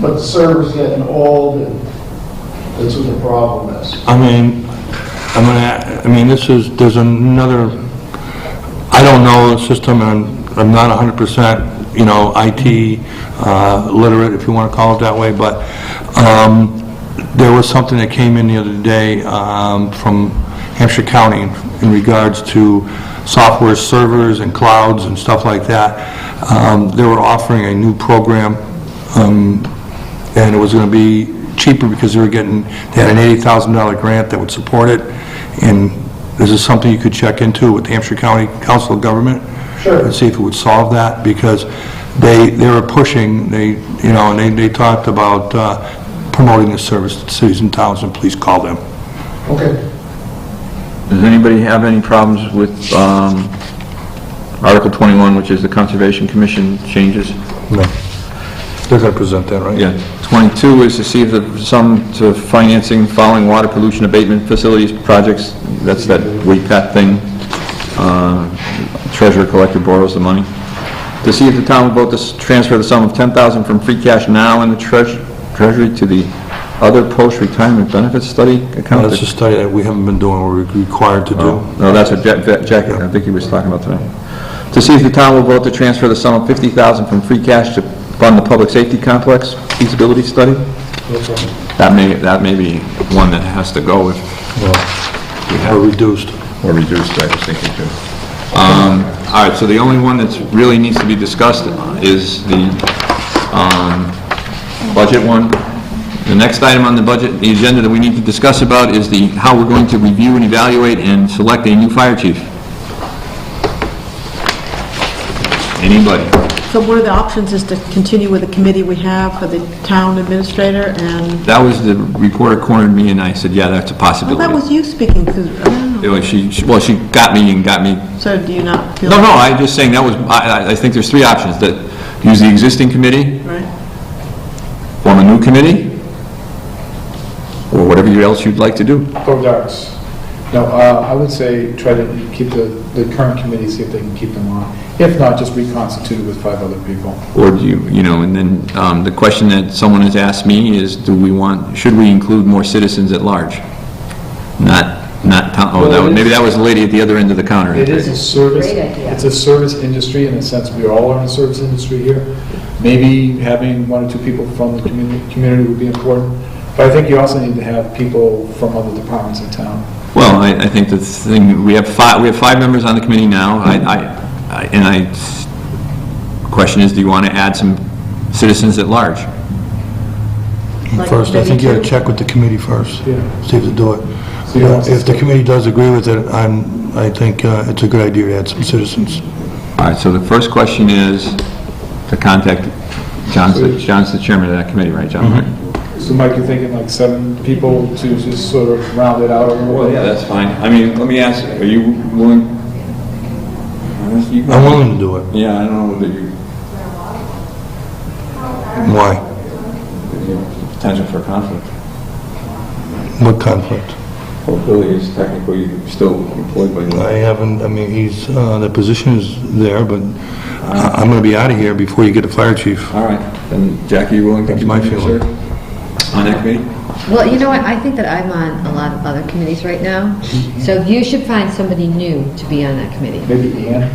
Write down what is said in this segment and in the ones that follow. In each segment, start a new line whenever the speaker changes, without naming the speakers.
But server's getting old, and that's what the problem is.
I mean, I mean, I- I mean, this is, there's another, I don't know the system, and I'm, I'm not hundred percent, you know, IT uh, literate, if you want to call it that way, but, um, there was something that came in the other day, um, from Hampshire County in regards to software servers and clouds and stuff like that. Um, they were offering a new program, um, and it was going to be cheaper because they were getting, they had an $80,000 grant that would support it, and this is something you could check into with Hampshire County Council of Government.
Sure.
And see if it would solve that, because they, they were pushing, they, you know, and they, they talked about uh, promoting this service to cities and towns, and please call them.
Okay.
Does anybody have any problems with um, Article 21, which is the Conservation Commission changes?
No. They're going to present that, right?
Yeah. 22 is to see if the sum to financing following water pollution abatement facilities projects, that's that WEPAT thing, uh, treasurer collector borrows the money. To see if the town will vote to s- transfer the sum of 10000 from free cash now in the treas- treasury to the other post-retirement benefits study account.
That's a study that we haven't been doing, we're required to do.
No, that's what Jack, Jack- Jack- I think he was talking about tonight. To see if the town will vote to transfer the sum of 50000 from free cash to fund the public safety complex feasibility study. That may, that may be one that has to go if
Or reduced.
we're reduced, I was thinking too. Um, All right, so the only one that's really needs to be discussed uh, is the um, budget one. The next item on the budget, the agenda that we need to discuss about is the, how we're going to review and evaluate and select a new fire chief. Anybody?
So one of the options is to continue with the committee we have for the town administrator, and,
That was the reporter cornered me and I said, yeah, that's a
well,
possibility.
Oh, that was you speaking, because,
It was- she- she- Well, she got me and got me
so do you not feel?
No, no, I'm just saying, that was, I, I- I think there's three options, that use the existing committee,
Right,
form a new committee, or whatever you- else you'd like to do.
Go Ducks. No, uh, I would say try to keep the, the current committee, see if they can keep them on. If not, just reconstitute it with five other people.
Or do you, you know, and then, um, the question that someone has asked me is, do we want, should we include more citizens at large? Not, not, town- oh, that was, maybe that was the lady at the other end of the counter.
It is a service,
Great idea.
it's a service industry in the sense we all are in the service industry here. Maybe having one or two people from the community, community would be important, but I think you also need to have people from other departments in town.
Well, I, I think the thing, we have five, we have five members on the committee now, I, I- I, and I, question is, do you want to add some citizens at large?
Like
First, I think you got to
maybe two?
check with the committee first.
Yeah.
See if they do it.
So you don't-
If the committee does agree with it, I'm, I think uh, it's a good idea to add some citizens.
All right, so the first question is to contact, John's, the- John's the chairman of that committee, right, John?
Mm-hmm.
So Mike, you're thinking like seven people to just sort of round it out a little
Well, yeah,
bit?
that's fine. I mean, let me ask, are you willing?
I'm willing to do it.
Yeah, I don't know that you,
Why?
potential for conflict.
What conflict?
Well, Billy is technically still employed by
I haven't, I mean, he's, uh, the position is there, but I- I'm going to be out of here before you get a fire chief.
All right, then Jackie, you willing to
That's my
continue to
feeling.
serve on that committee?
Well, you know what, I think that I'm on a lot of other committees right now, so you should find somebody new to be on that committee.
Maybe Ann?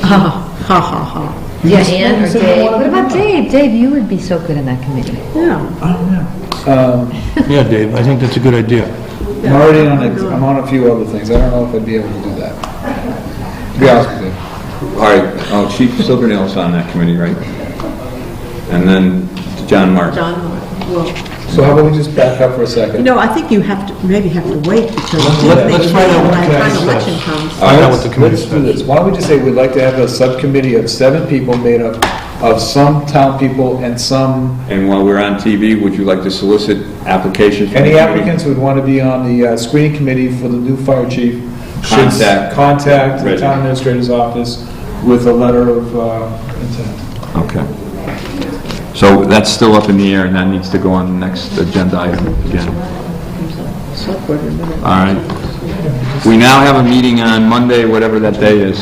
Ha, ha, ha, ha.
Yeah, Ann or
said you
Dave,
wanted
what
to
about Dave? Dave, you would be so good in that committee.
Yeah,
Um,
Yeah, Dave, I think that's a good idea.
I'm already on, it. I'm on a few other things, I don't know if I'd be able to do that. To Be honest with
All
you.
right, oh, Chief Silvernail's on that committee, right? And then John Mark.
John, well,
So how about we just back up for a
you
second?
know, I think you have to, maybe have to wait, because if
let-
they-
let's find out what
by the
the
time
committee
election
says.
comes,
I know what the committee
Let's do
says.
this, why don't we just say we'd like to have a subcommittee of seven people made up of some town people and some,
And while we're on TV, would you like to solicit applications? from
any
the
applicants who'd want to be on the uh, screening committee for the new fire chief? should s-
Contact.
Contact the
Right.
town administrator's office with a letter of uh, intent.
community? Okay. So that's still up in the air, and that needs to go on the next agenda item again.
select board member.
All right. We now have a meeting on Monday, whatever that day is,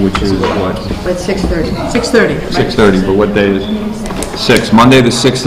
which is what,
But 6:30.
6:30.
6:30, but what day is? 6, Monday the 6th